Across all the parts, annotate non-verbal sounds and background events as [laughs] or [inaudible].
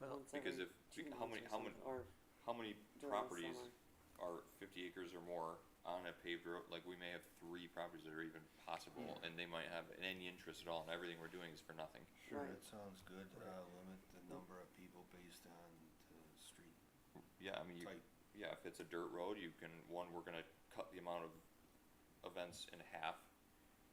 Well, once Because every if, two how many, months or how many, how many something, Or during the properties are summer. fifty acres or more on a paved road? Like, we may have three properties that are even possible, and they might have any interest at all, and everything we're doing is for nothing. Sure, Right. that sounds good, uh, limit the number of people based on the street Yeah, I mean, you, type. yeah, if it's a dirt road, you can, one, we're gonna cut the amount of events in half,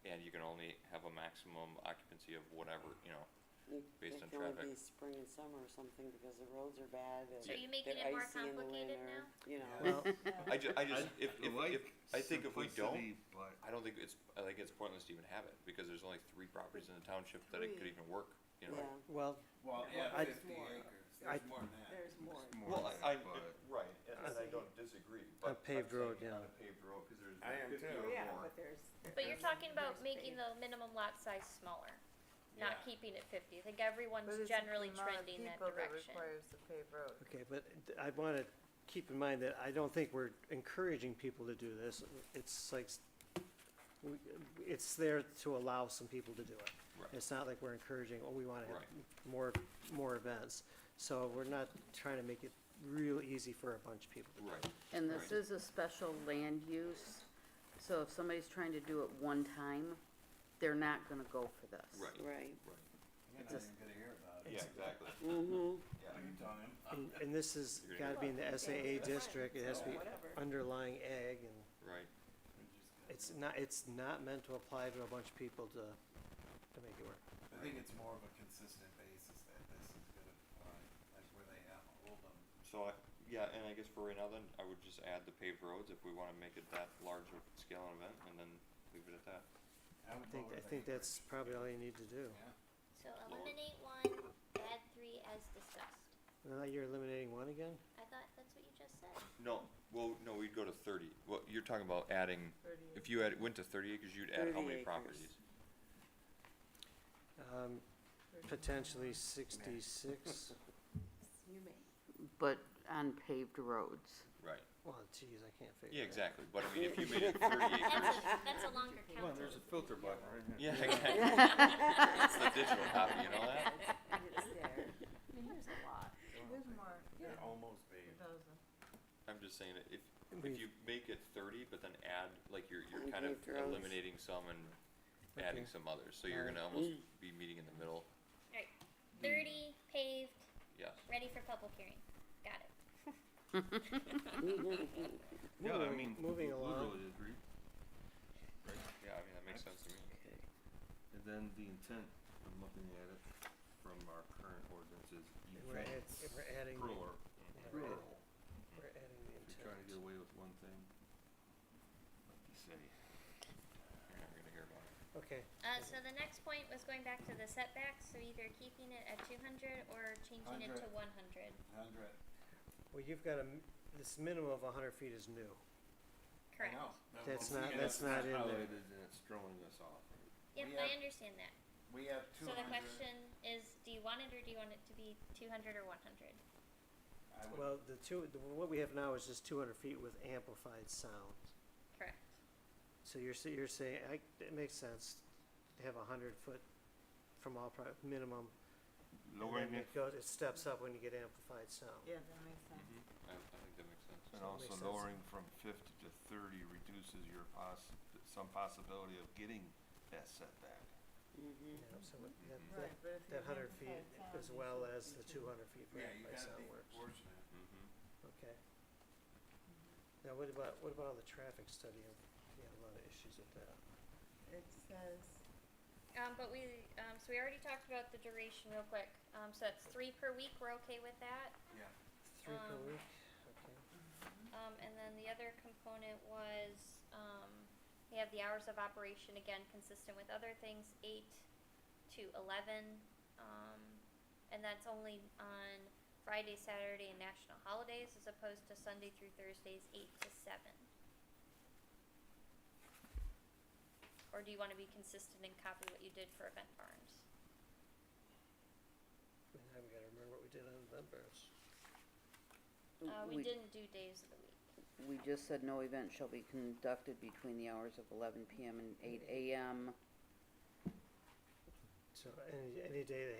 and you can only have a maximum occupancy of whatever, you know, You, based it on can only traffic. be spring and summer or something because the roads are bad and So are you making they're it more icy in the complicated winter, now? you know. well, I ju- I just, if, if, if, I think if we don't, Simplicity, But I don't think it's, I think it's pointless to even have it, because there's only three properties in the township that it could Three. even work, [laughs] you know? Yeah, well, [laughs] Well, yeah, I- fifty more. acres, I- there's more than that. There's more. it's more Well, I, than I, that, but- right, and and I don't disagree, but. A paved I'm road, saying yeah. On a paved road, cause there's I am fifty too. or Yeah, more. but there's. But you're talking about making the the minimum lot size smaller, Yeah. not keeping it fifty. I think everyone's generally trending that direction. Requires the paved road. okay, but th- I wanna keep in mind that I don't think we're encouraging people to do this. It's like, s- we- it's there to allow some people to do it. Right. It's not like we're encouraging, oh, we wanna have Right. m- more, more events. So we're not trying to make it real easy for a bunch of people to do it. Right, And this Right. is a special land use, so if somebody's trying to do it one time, they're not gonna go for this. right, right. right, You're not Just- even gonna hear about it. yeah, exactly, Mm-hmm. yeah. Are you telling him? And, and this has You're gonna gotta be in Well, the okay, SAA it's district, it has to fine, be so whatever. underlying ag and Right, it's not, it's not meant to apply to a bunch of people to, to make it work. I think it's more of a consistent basis that this is gonna apply, like where they have hold them. so I, yeah, and I guess for right now then, I would just add the paved roads if we wanna make it that large of scale an event, and then leave it at that. I I would think, lower I the think that's acreage. probably all you need to do. Yeah. So eliminate one, add three as discussed. Now Uh, you're eliminating one again? I thought that's what you just [laughs] said. No, well, no, we'd go to thirty, well, you're talking about adding, if you had, went to thirty acres, you'd add how 30 many acres. properties? Um, potentially sixty-six, You may. But on paved roads. Right, well, geez, I can't figure yeah, it out. exactly, but I mean, if you made it thirty acres, That's a, that's a longer Well, count. there's a filter button right here. yeah, exactly. [laughs] It's the digital copy, you know that? It's there. There's a lot. There's more. They're almost paved. I'm just saying, that if, We've- if you make it thirty, but then add, like, you're, you're And kind of paved roads. eliminating some and adding Okay. some others, so you're gonna almost be meeting in the middle, Alright, thirty paved, yes. ready for public hearing. Got it. Mm-hmm. [laughs] Yeah, I Moving- mean, Moving Blue along, Village agreed. Yeah, I mean, that makes sense to me. Okay. And then the intent, I'm looking at it from our current ordinances, and we're add, events, and we're adding, the- plural, yeah, we're adding, plural. we're adding the If you're trying to get intent. away with one thing, like you say. You're never gonna hear about it. Okay, Uh, so the next point was going back to the setbacks, so either keeping it at two hundred or changing it to one hundred. Hundred, well, you've got a, m- this minimum of hundred feet is new. I Correct. know. That- That's well, not, we that's have- not in there. Highlighted and it's throwing us off. Yep, We I have- understand that. We have two So the hundred, question is, do you want it or do you want it to be two hundred or one hundred? I would, Well, the two, the- what we have now is just two hundred feet with amplified sound. Correct. So you're, sa- you're saying, I, it makes sense to have a hundred foot from all pro, minimum. and Lowering then it It goes, it steps up when you get amplified sound. Yeah, that makes sense. Mm-hmm. I, I think that makes sense. And So it also makes sense. lowering from fifty to thirty reduces your poss- some possibility of getting that setback. Mm-hmm. Yeah, so it- that, Right, that, but if that you're hundred amplified feet sound, as you well should as be the two two hundred feet for yeah, you amplified gotta sound be works, proportionate. Mm-hmm. okay. Now, what about, what about the traffic study? We had a lot of issues with that. It says, Um, but we, um, so we already talked about the duration real quick. Um, so that's three per week, we're okay with that. Three per Um, week, okay. Um, and then the other component was, um, we have the hours of operation, again, consistent with other things, eight to eleven. Um, and that's only on Friday, Saturday, and national holidays, as opposed to Sunday through Thursdays, eight to seven. Or do you wanna be consistent and copy what you did for event barns? And now we gotta remember what we did on event bars. Uh, we didn't do days of the week. We just said no event shall be conducted between the hours of eleven PM and eight AM. So any, any day they